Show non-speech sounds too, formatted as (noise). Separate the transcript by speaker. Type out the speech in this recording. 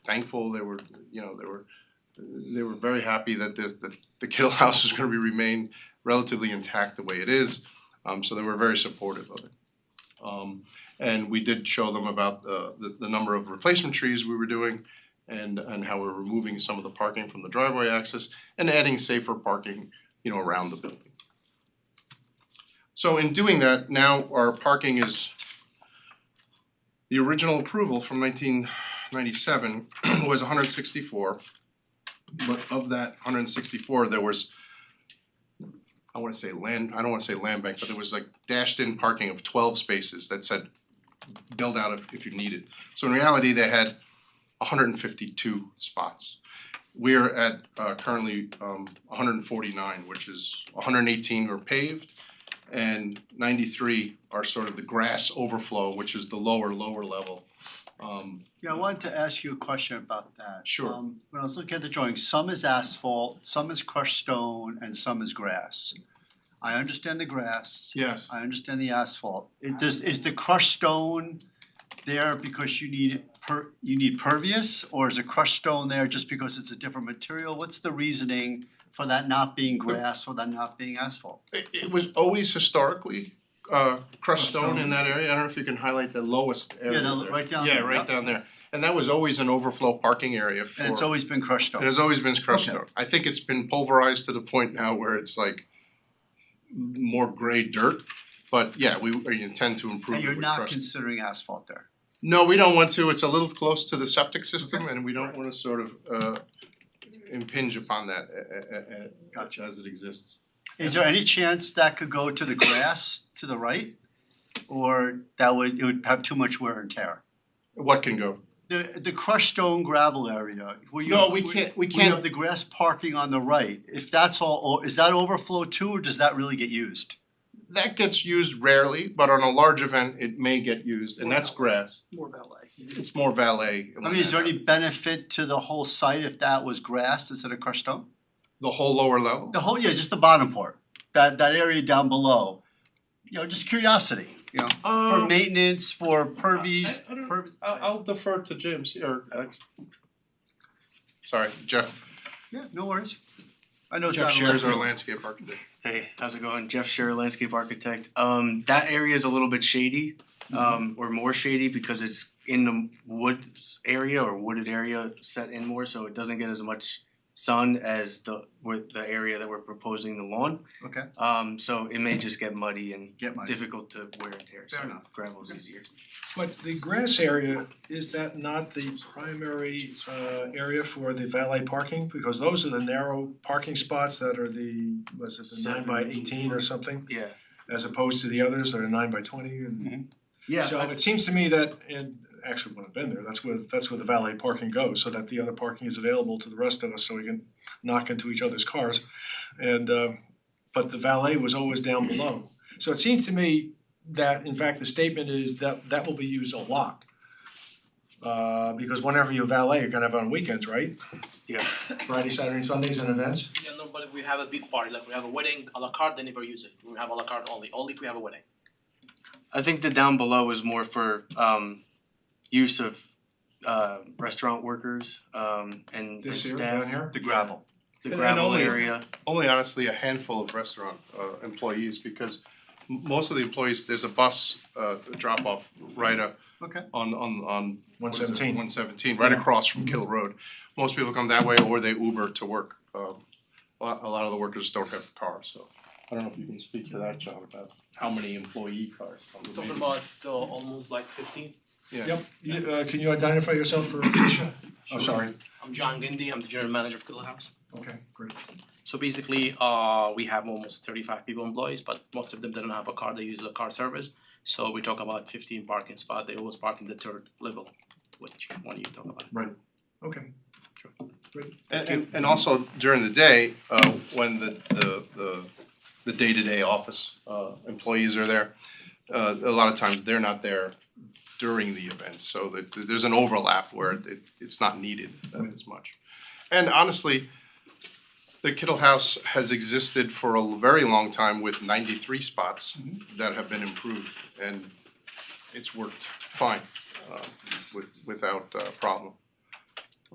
Speaker 1: thankful, they were, you know, they were they were very happy that this that the Kittle (laughs) House is gonna be remain relatively intact the way it is. Um so they were very supportive of it. Um and we did show them about the the the number of replacement trees we were doing and and how we're removing some of the parking from the driveway access and adding safer parking, you know, around the building. So in doing that, now our parking is the original approval from nineteen ninety-seven (clears throat) was hundred sixty-four. But of that hundred and sixty-four, there was I wanna say land, I don't wanna say land bank, but there was like dashed in parking of twelve spaces that said build out if if you need it. So in reality, they had hundred and fifty-two spots. We're at uh currently um hundred and forty-nine, which is hundred and eighteen are paved and ninety-three are sort of the grass overflow, which is the lower, lower level. Um
Speaker 2: Yeah, I wanted to ask you a question about that.
Speaker 1: Sure.
Speaker 2: Um, When I was looking at the drawing, some is asphalt, some is crushed stone, and some is grass. I understand the grass,
Speaker 1: yes,
Speaker 2: I understand the asphalt. It does, is the crushed stone there because you need per, you need pervious? Or is the crushed stone there just because it's a different material? What's the reasoning for that not being grass or that not being asphalt?
Speaker 1: it it was always historically uh crushed stone in
Speaker 2: stone.
Speaker 1: that area, I don't know if you can highlight the lowest area
Speaker 2: Yeah, the-
Speaker 1: there.
Speaker 2: right down
Speaker 1: Yeah,
Speaker 2: there,
Speaker 1: right
Speaker 2: yep.
Speaker 1: down there, and that was always an overflow parking area for.
Speaker 2: And it's always been crushed
Speaker 1: It
Speaker 2: stone.
Speaker 1: has always been crushed
Speaker 2: Okay.
Speaker 1: stone, I think it's been pulverized to the point now where it's like more gray dirt, but yeah, we we intend to improve
Speaker 2: And
Speaker 1: it
Speaker 2: you're
Speaker 1: with
Speaker 2: not
Speaker 1: crushed-
Speaker 2: considering asphalt there.
Speaker 1: No, we don't want to, it's a little close to the septic system and we don't wanna sort of uh impinge upon that uh uh
Speaker 2: Gotcha.
Speaker 1: as it exists.
Speaker 2: Is there any chance that could go to the grass to the right? Or that would, it would have too much wear and tear?
Speaker 1: What can go?
Speaker 2: The, the crushed stone gravel area, where you.
Speaker 1: No, we can't- we
Speaker 2: where you
Speaker 1: can't-
Speaker 2: have the grass parking on the right, if that's all, o- is that overflow too, or does that really get used?
Speaker 1: That gets used rarely, but on a large event, it may get used and that's grass.
Speaker 3: more valet.
Speaker 1: It's more valet.
Speaker 2: I mean, is there any benefit to the whole site if that was grass instead of crushed stone?
Speaker 1: The whole lower level?
Speaker 2: The whole, yeah, just the bottom part, that, that area down below. You know, just curiosity, you know, for
Speaker 1: Um,
Speaker 2: maintenance, for pervies,
Speaker 1: I- I don't-
Speaker 2: pervies.
Speaker 1: I'll I'll defer to James or uh, Sorry, Jeff,
Speaker 2: Yeah, no worries. I know it's
Speaker 1: Jeff
Speaker 2: out of left
Speaker 1: Shares our
Speaker 2: field.
Speaker 1: landscape architect.
Speaker 4: Hey, how's it going? Jeff Scherer, landscape architect. Um, that area is a little bit shady, um, or more shady because it's in the woods area or wooded area set in more, so it doesn't get as much sun as the with the area that we're proposing the lawn.
Speaker 2: Okay,
Speaker 4: Um, so it may just get muddy and
Speaker 2: get my,
Speaker 4: difficult to wear and tear. So
Speaker 2: Fair enough.
Speaker 4: gravel's easier.
Speaker 3: But the grass area, is that not the primary uh area for the valet parking? Because those are the narrow parking spots that are the, was it the nine by
Speaker 4: Seven.
Speaker 3: eighteen or something?
Speaker 4: Yeah.
Speaker 3: As opposed to the others that are nine by twenty and.
Speaker 4: Yeah.
Speaker 3: So it seems to me that, and actually when I've been there, that's where, that's where the valet parking goes, so that the other parking is available to the rest of us, so we can knock into each other's cars. And, uh, but the valet was always down below. So it seems to me that, in fact, the statement is that that will be used a lot. Uh, because whenever you valet, you're gonna have on weekends, right?
Speaker 4: Yeah.
Speaker 3: Friday, Saturday, and Sundays and events?
Speaker 5: Yeah, no, but if we have a big party, like we have a wedding, a la carte, they never use it. We have a la carte only, only if we have a wedding.
Speaker 4: I think the down below is more for um use of uh restaurant workers um and and
Speaker 3: This year,
Speaker 4: staff.
Speaker 3: down here?
Speaker 2: the gravel.
Speaker 4: The
Speaker 1: And- and
Speaker 4: gravel
Speaker 1: only-
Speaker 4: area.
Speaker 1: only honestly a handful of restaurant uh employees because m- most of the employees, there's a bus uh drop off right uh
Speaker 2: Okay.
Speaker 1: on on on
Speaker 3: One seventeen.
Speaker 1: one seventeen, right across from Kill Road. Most people come that way or they Uber to work. Um a lot, a lot of the workers don't have cars, so I don't know if you can speak to that, John, about how many employee cars.
Speaker 5: Talking about uh, almost like 15.
Speaker 1: Yeah.
Speaker 3: Yep, You- uh, can you identify yourself for, oh, sorry,
Speaker 5: I'm John Gindy, I'm the general manager of Kittle House.
Speaker 3: okay, great.
Speaker 5: So basically, uh, we have almost 35 people employees, but most of them they don't have a car, they use the car service. So we talk about 15 parking spot. they always park in the third level, which one you talk about.
Speaker 3: Okay.
Speaker 1: And and and also during the day, uh when the the the the day-to-day office uh employees are there, uh a lot of times they're not there during the events, so that that there's an overlap where it it's not needed as much. And honestly, the Kittle House has existed for a very long time with ninety-three spots that have been improved and it's worked fine uh with without uh problem.